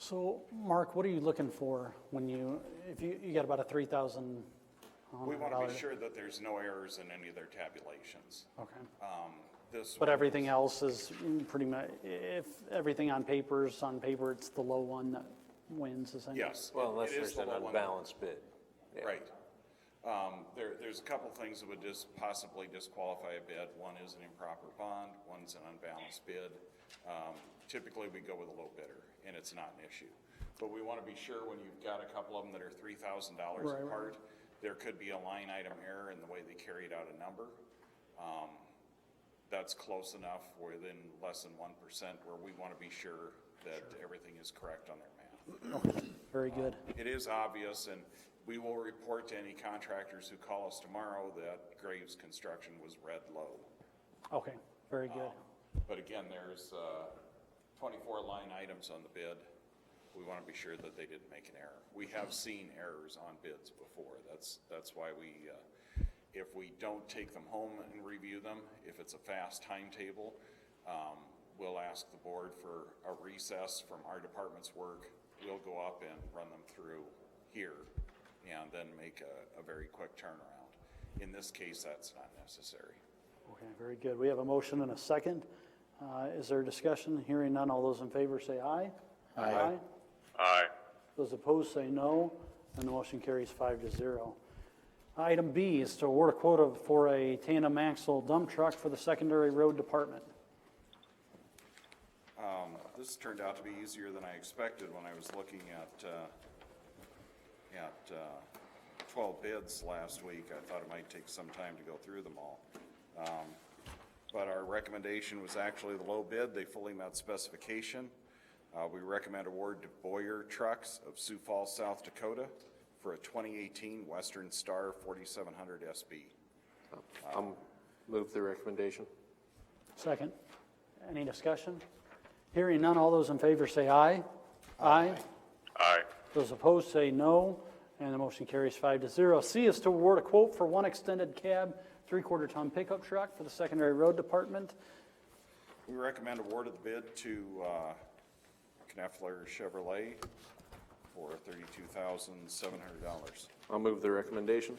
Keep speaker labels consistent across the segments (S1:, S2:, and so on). S1: So, Mark, what are you looking for when you, if you, you got about a three thousand?
S2: We want to be sure that there's no errors in any of their tabulations.
S1: Okay,
S2: Um, This,
S1: but everything else is pretty much, if everything on paper's on paper, it's the low one that wins essentially?
S2: yes.
S3: Well,
S2: it-
S3: unless
S2: it is
S3: there's
S2: the
S3: an
S2: low one.
S3: unbalanced bid. Yeah.
S2: Right. Um, There, there's a couple things that would just possibly disqualify a bid. One is an improper bond, one's an unbalanced bid. Um, Typically, we go with a low bidder, and it's not an issue. But we want to be sure when you've got a couple of them that are three thousand dollars
S1: Right, right.
S2: apart, there could be a line item error in the way they carried out a number. Um, That's close enough, within less than one percent, where we want to be sure that everything is correct on their math.
S1: Very good.
S2: It is obvious, and we will report to any contractors who call us tomorrow that Graves Construction was red low.
S1: Okay, very good.
S2: But again, there's uh, 24 line items on the bid. We want to be sure that they didn't make an error. We have seen errors on bids before. That's, that's why we, uh, if we don't take them home and review them, if it's a fast timetable, um, we'll ask the board for a recess from our department's work. We'll go up and run them through here and then make a, a very quick turnaround. In this case, that's not necessary.
S1: Okay, very good. We have a motion and a second. Uh, is there discussion? Hearing none, all those in favor say aye. Aye.
S2: Aye.
S1: Those opposed say no, and the motion carries five to zero. Item B is to award a quota for a tandem axle dump truck for the secondary road department.
S2: Um, This turned out to be easier than I expected when I was looking at, uh, at uh, 12 bids last week. I thought it might take some time to go through them all. Um, But our recommendation was actually the low bid. They fully met specification. Uh, We recommend award to Boyer Trucks of Sioux Falls, South Dakota for a 2018 Western Star 4700 SB.
S3: Um, Move the recommendation.
S1: Second. Any discussion? Hearing none, all those in favor say aye. Aye.
S2: Aye.
S1: Those opposed say no, and the motion carries five to zero. C is to award a quote for one extended cab, three-quarter ton pickup truck for the secondary road department.
S2: We recommend award of the bid to uh, Kneffler Chevrolet for $32,700.
S3: I'll move the recommendation.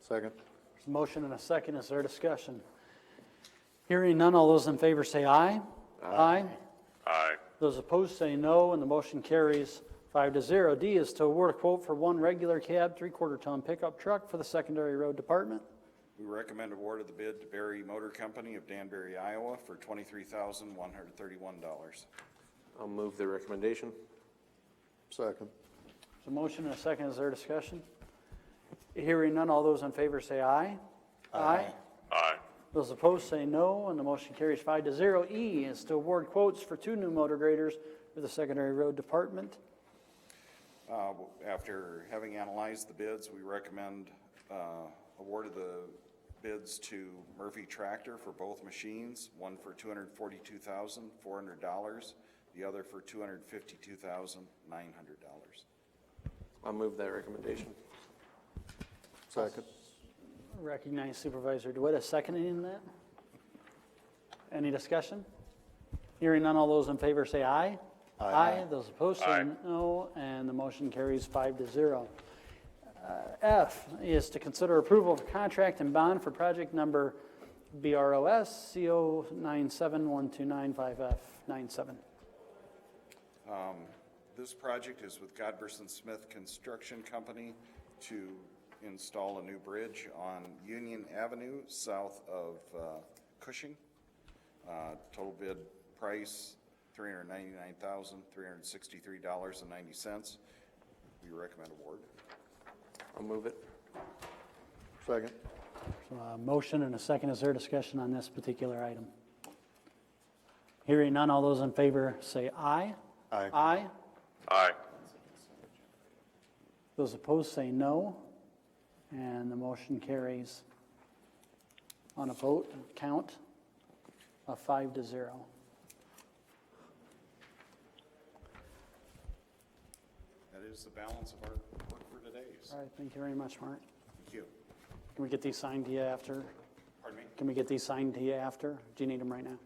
S3: Second.
S1: There's a Motion and a second, is there discussion? Hearing none, all those in favor say aye. Aye.
S2: Aye.
S1: Those opposed say no, and the motion carries five to zero. D is to award a quote for one regular cab, three-quarter ton pickup truck for the secondary road department.
S2: We recommend award of the bid to Berry Motor Company of Danbury, Iowa for $23,131.
S3: I'll move the recommendation.
S4: Second.
S1: There's a motion and a second, is there discussion? Hearing none, all those in favor say aye. Aye.
S2: Aye.
S1: Those opposed say no, and the motion carries five to zero. E is to award quotes for two new motor graders for the secondary road department.
S2: Uh, After having analyzed the bids, we recommend uh, award of the bids to Murphy Tractor for both machines, one for $242,400, the other for $252,900.
S3: I'll move that recommendation.
S4: Second.
S1: Recognize Supervisor DeWitt as seconding in that. Any discussion? Hearing none, all those in favor say aye.
S4: Aye.
S1: Those opposed say no, and the motion carries five to zero. Uh, F is to consider approval of contract and bond for project number BROS CO 9712955F97.
S2: This project is with Godberson Smith Construction Company to install a new bridge on Union Avenue south of uh, Cushing. Uh, Total bid price, $399,363.90. We recommend award.
S3: I'll move it.
S4: Second.
S1: Uh, Motion and a second. Is there discussion on this particular item? Hearing none, all those in favor say aye.
S4: Aye.
S1: Aye.
S2: Aye.
S1: Those opposed say no, and the motion carries on a vote count of five to zero.
S2: That is the balance of our work for today.
S1: All right, thank you very much, Mark.
S2: Thank you.
S1: Can we get these signed to you after?
S2: Pardon me?
S1: Can we get these signed to you after? Do you need them right now?